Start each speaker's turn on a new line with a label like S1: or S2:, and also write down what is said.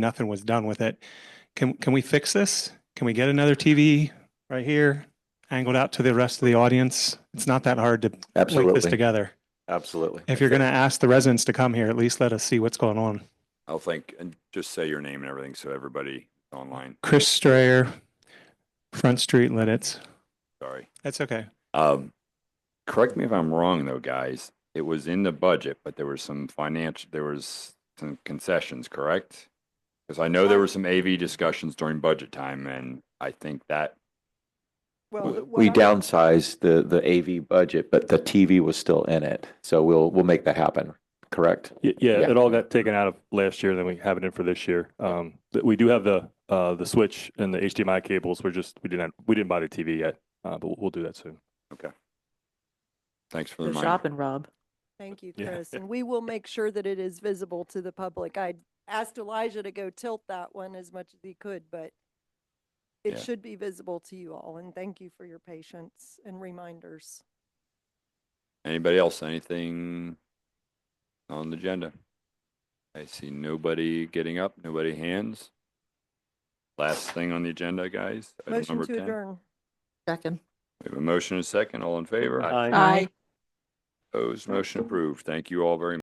S1: nothing was done with it. Can, can we fix this? Can we get another TV right here angled out to the rest of the audience? It's not that hard to link this
S2: Absolutely,
S1: together.
S2: absolutely.
S1: If you're going to ask the residents to come here, at least let us see what's going on.
S3: I'll think, and just say your name and everything so everybody online,
S1: Chris Strayer, Front Street Lidditz.
S3: sorry.
S1: That's okay.
S3: Um, correct me if I'm wrong though, guys, it was in the budget, but there was some financial, there was some concessions, correct? Because I know there were some AV discussions during budget time and I think that,
S4: Well,
S2: We-
S4: what
S2: We
S4: I-
S2: downsized the, the AV budget, but the TV was still in it. So we'll, we'll make that happen, correct?
S5: Y- Yeah,
S2: Yeah.
S5: it all got taken out of last year, then we have it in for this year. Um, th- we do have the, uh, the switch and the HDMI cables. We're just, we didn't, we didn't buy the TV yet, uh, but we'll- we'll do that soon.
S3: thanks for the
S6: Go
S3: reminder.
S6: shopping, Rob.
S4: Thank you,
S5: Yeah.
S4: Chris. And we will make sure that it is visible to the public. I asked Elijah to go tilt that one as much as he could, but
S3: Yeah.
S4: it should be visible to you all. And thank you for your patience and reminders.
S3: Anybody else, anything on the agenda? I see nobody getting up, nobody hands. Last thing on the agenda, guys. item
S4: Motion
S3: number
S4: to
S3: 10.
S4: adjourn.
S6: Second.
S3: We have a motion and a second, all in favor?
S6: Aye.
S3: Opposed, motion approved. Thank you all very much.